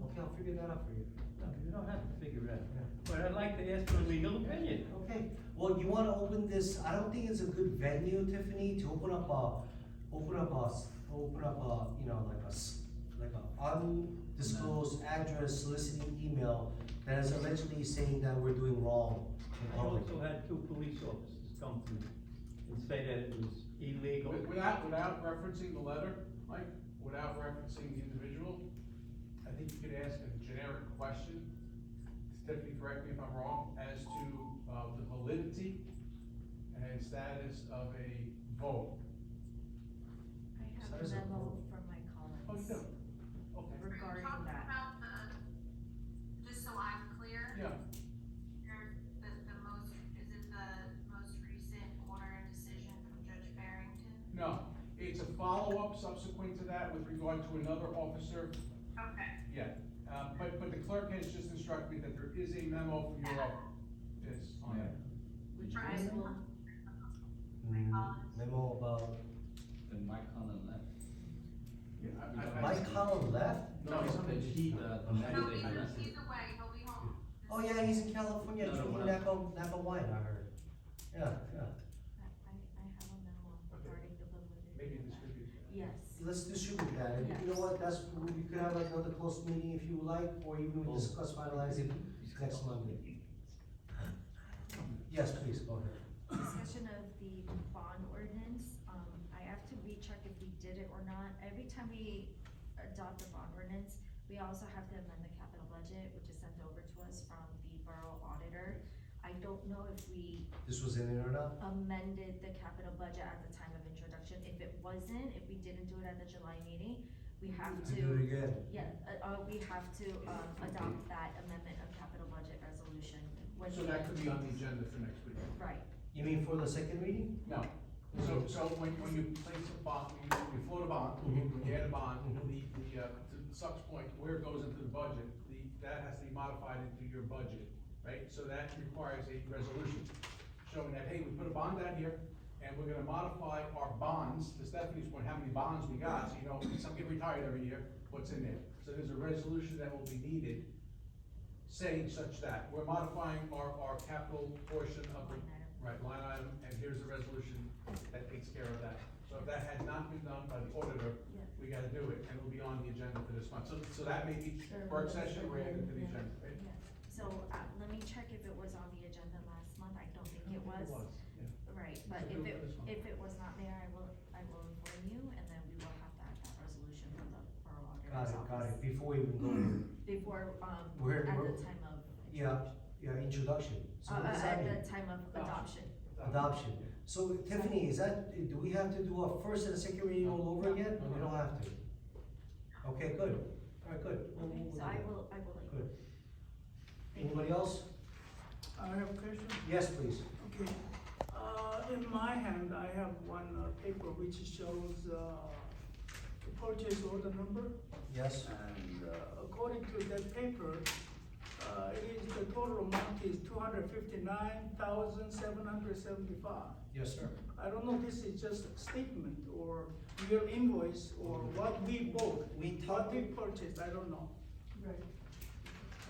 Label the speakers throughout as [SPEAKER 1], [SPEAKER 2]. [SPEAKER 1] that out for you.
[SPEAKER 2] No, you don't have to figure it out, but I'd like to ask for a legal opinion.
[SPEAKER 1] Okay, well, you wanna open this, I don't think it's a good venue, Tiffany, to open up a, open up a, s- open up a, you know, like a, s- like a undisclosed address soliciting email that is allegedly saying that we're doing wrong in
[SPEAKER 2] I
[SPEAKER 1] public.
[SPEAKER 2] also had two police officers come to me and say that it was illegal.
[SPEAKER 3] Wi- Without, without referencing the letter, Mike, without referencing the individual, I think you could ask a generic question. Tiffany, correct me if I'm wrong, as to, uh, the validity and status of a vote.
[SPEAKER 4] I have
[SPEAKER 1] Size
[SPEAKER 4] a
[SPEAKER 1] of
[SPEAKER 4] memo
[SPEAKER 1] vote.
[SPEAKER 4] from my
[SPEAKER 3] Oh, you
[SPEAKER 4] colleagues
[SPEAKER 3] do? Okay,
[SPEAKER 5] We're
[SPEAKER 4] regarding
[SPEAKER 5] talking
[SPEAKER 4] that.
[SPEAKER 5] about the- Just so I'm clear,
[SPEAKER 3] yeah,
[SPEAKER 5] there's the, the most, is it the most recent order and decision from Judge Barrington?
[SPEAKER 3] no, it's a follow-up subsequent to that with regard to another officer,
[SPEAKER 5] Okay,
[SPEAKER 3] yeah. Uh, but, but the clerk has just instructed me that there is a memo from your office. Yes, on that.
[SPEAKER 4] which I
[SPEAKER 5] Brian.
[SPEAKER 4] will,
[SPEAKER 6] Uh,
[SPEAKER 1] Mm, Memo about,
[SPEAKER 6] Then Mike Conlon left.
[SPEAKER 3] Yeah, I- I- I-
[SPEAKER 1] Mike Collin left?
[SPEAKER 3] No, it's not
[SPEAKER 6] That he,
[SPEAKER 3] uh,
[SPEAKER 6] the,
[SPEAKER 5] no,
[SPEAKER 6] the manager,
[SPEAKER 5] he's,
[SPEAKER 6] he left.
[SPEAKER 5] he's away, he'll be home.
[SPEAKER 1] Oh, yeah, he's in California,
[SPEAKER 6] No, no,
[SPEAKER 1] drinking
[SPEAKER 6] what
[SPEAKER 1] Napa, Napa wine, I heard. Yeah, yeah,
[SPEAKER 4] I, I I have a memo regarding the
[SPEAKER 3] Maybe
[SPEAKER 4] validity
[SPEAKER 3] in
[SPEAKER 4] of
[SPEAKER 3] this
[SPEAKER 4] that.
[SPEAKER 3] could be.
[SPEAKER 4] Yes,
[SPEAKER 1] let's distribute that, and you know what, that's, we could have like another close meeting if you like, or even we discuss finalizing next Monday. Yes, please, go ahead.
[SPEAKER 4] discussion of the bond ordinance, um, I have to recheck if we did it or not. Every time we adopt a bond ordinance, we also have to amend the capital budget, which is sent over to us from the borough auditor. I don't know if we
[SPEAKER 1] This was in it or not?
[SPEAKER 4] amended the capital budget at the time of introduction. If it wasn't, if we didn't do it at the July meeting, we have
[SPEAKER 1] To do it
[SPEAKER 4] to,
[SPEAKER 1] again.
[SPEAKER 4] yeah, uh, uh, we have to, um, adopt that amendment of capital budget resolution. when
[SPEAKER 3] So
[SPEAKER 4] we-
[SPEAKER 3] that could be on the agenda for next week?
[SPEAKER 4] Right,
[SPEAKER 1] You mean for the second reading?
[SPEAKER 3] No. So, so when, when you place a bond, when you- when you float a bond, when you add a bond, the, the, uh, to Suck's point, where it goes into the budget, the, that has to be modified into your budget, right? So that requires a resolution showing that, hey, we put a bond out here, and we're gonna modify our bonds, to Stephanie's point, how many bonds we got, so you know, some get retired every year, what's in there? So there's a resolution that will be needed saying such that, we're modifying our, our capital portion of the,
[SPEAKER 4] Line item.
[SPEAKER 3] right, line item, and here's a resolution that takes care of that. So if that had not been done by the auditor,
[SPEAKER 4] Yeah.
[SPEAKER 3] we gotta do it, and it'll be on the agenda for this month, so, so that may be
[SPEAKER 4] Sure.
[SPEAKER 3] work session, we're adding to the
[SPEAKER 4] Yeah.
[SPEAKER 3] agenda, right?
[SPEAKER 4] yeah. So, uh, let me check if it was on the agenda last month. I don't think it was.
[SPEAKER 3] yeah.
[SPEAKER 4] Right, but if it, if it was not there, I will, I will inform you and then we will have to add that resolution from the borough
[SPEAKER 1] Got
[SPEAKER 4] auditor's
[SPEAKER 1] it, got
[SPEAKER 4] office.
[SPEAKER 1] it, before we even go, there.
[SPEAKER 4] Before, um,
[SPEAKER 1] We're-
[SPEAKER 4] at
[SPEAKER 1] we're-
[SPEAKER 4] the time of.
[SPEAKER 1] yeah, yeah, introduction. So
[SPEAKER 4] Uh,
[SPEAKER 1] what Oh.
[SPEAKER 4] uh,
[SPEAKER 1] does that mean?
[SPEAKER 4] at the time of adoption.
[SPEAKER 1] Adoption. So Tiffany, is that, do we have to do a first and a second reading all over again?
[SPEAKER 3] No, no.
[SPEAKER 1] We don't have to. Okay, good, alright, good. We'll-
[SPEAKER 4] Okay,
[SPEAKER 1] we'll
[SPEAKER 4] so
[SPEAKER 1] do
[SPEAKER 4] I
[SPEAKER 1] that.
[SPEAKER 4] will, I will. let you-
[SPEAKER 1] Good.
[SPEAKER 4] Thank you.
[SPEAKER 1] Anybody else?
[SPEAKER 7] I have a question.
[SPEAKER 1] Yes, please.
[SPEAKER 7] Okay, uh, in my hand, I have one uh, paper which shows, uh, the purchase order number.
[SPEAKER 1] Yes,
[SPEAKER 7] And uh, according to that paper, uh, it is, the total amount is two hundred fifty-nine thousand, seven hundred seventy-five.
[SPEAKER 1] yes, sir.
[SPEAKER 7] I don't know, this is just a statement or your invoice or what we bought,
[SPEAKER 1] Mm-hmm. We
[SPEAKER 7] what
[SPEAKER 1] talked,
[SPEAKER 7] we purchased, I don't know.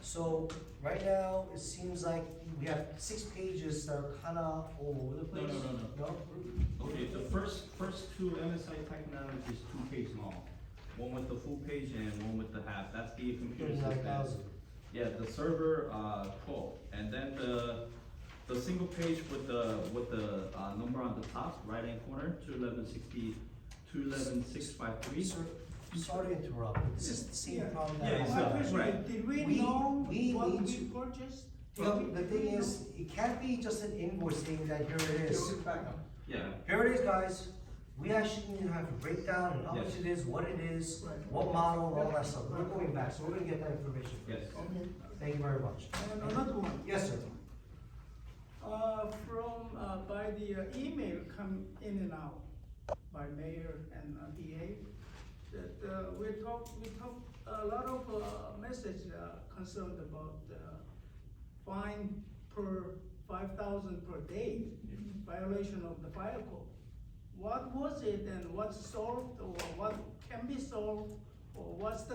[SPEAKER 1] so right now, it seems like we have six pages that are kinda all over the
[SPEAKER 6] No,
[SPEAKER 1] place.
[SPEAKER 6] no, no, no. Okay, the first, first two MSI technology is two page long. One with the full page and one with the half, that's the computer
[SPEAKER 1] Thirty-nine
[SPEAKER 6] system.
[SPEAKER 1] thousand.
[SPEAKER 6] Yeah, the server, uh, twelve, and then the, the single page with the, with the, uh, number on the top, right hand corner, two eleven sixty, two eleven six five three.
[SPEAKER 1] Sir, sorry to interrupt, but this is the same
[SPEAKER 7] Yeah.
[SPEAKER 1] problem that.
[SPEAKER 6] Yeah,
[SPEAKER 1] I
[SPEAKER 6] it's
[SPEAKER 1] had.
[SPEAKER 7] My
[SPEAKER 6] not-
[SPEAKER 7] question is,
[SPEAKER 6] right.
[SPEAKER 7] Did we
[SPEAKER 1] We-
[SPEAKER 7] know
[SPEAKER 1] we
[SPEAKER 7] what
[SPEAKER 1] need
[SPEAKER 7] we
[SPEAKER 1] to-
[SPEAKER 7] purchased? Did
[SPEAKER 1] Well,
[SPEAKER 7] we-
[SPEAKER 1] the
[SPEAKER 7] did
[SPEAKER 1] thing
[SPEAKER 7] we know?
[SPEAKER 1] is, it can't be just an invoice saying that here it is.
[SPEAKER 3] Back up.
[SPEAKER 6] Yeah,
[SPEAKER 1] Here it is, guys. We actually need to have a breakdown and how much
[SPEAKER 6] Yes.
[SPEAKER 1] it is, what it is,
[SPEAKER 7] Right.
[SPEAKER 1] what model, and all that stuff. We're going back, so we're gonna get that information.
[SPEAKER 6] yes.
[SPEAKER 7] Okay.
[SPEAKER 1] Thank you very much.
[SPEAKER 7] And another one.
[SPEAKER 1] Yes, sir.
[SPEAKER 7] Uh, from, uh, by the uh, email come in and out by mayor and uh, DA, that, uh, we talk, we talk, a lot of, uh, message, uh, concerned about, uh, fine per five thousand per day, violation of the fire code. What was it and what's solved or what can be solved or what's the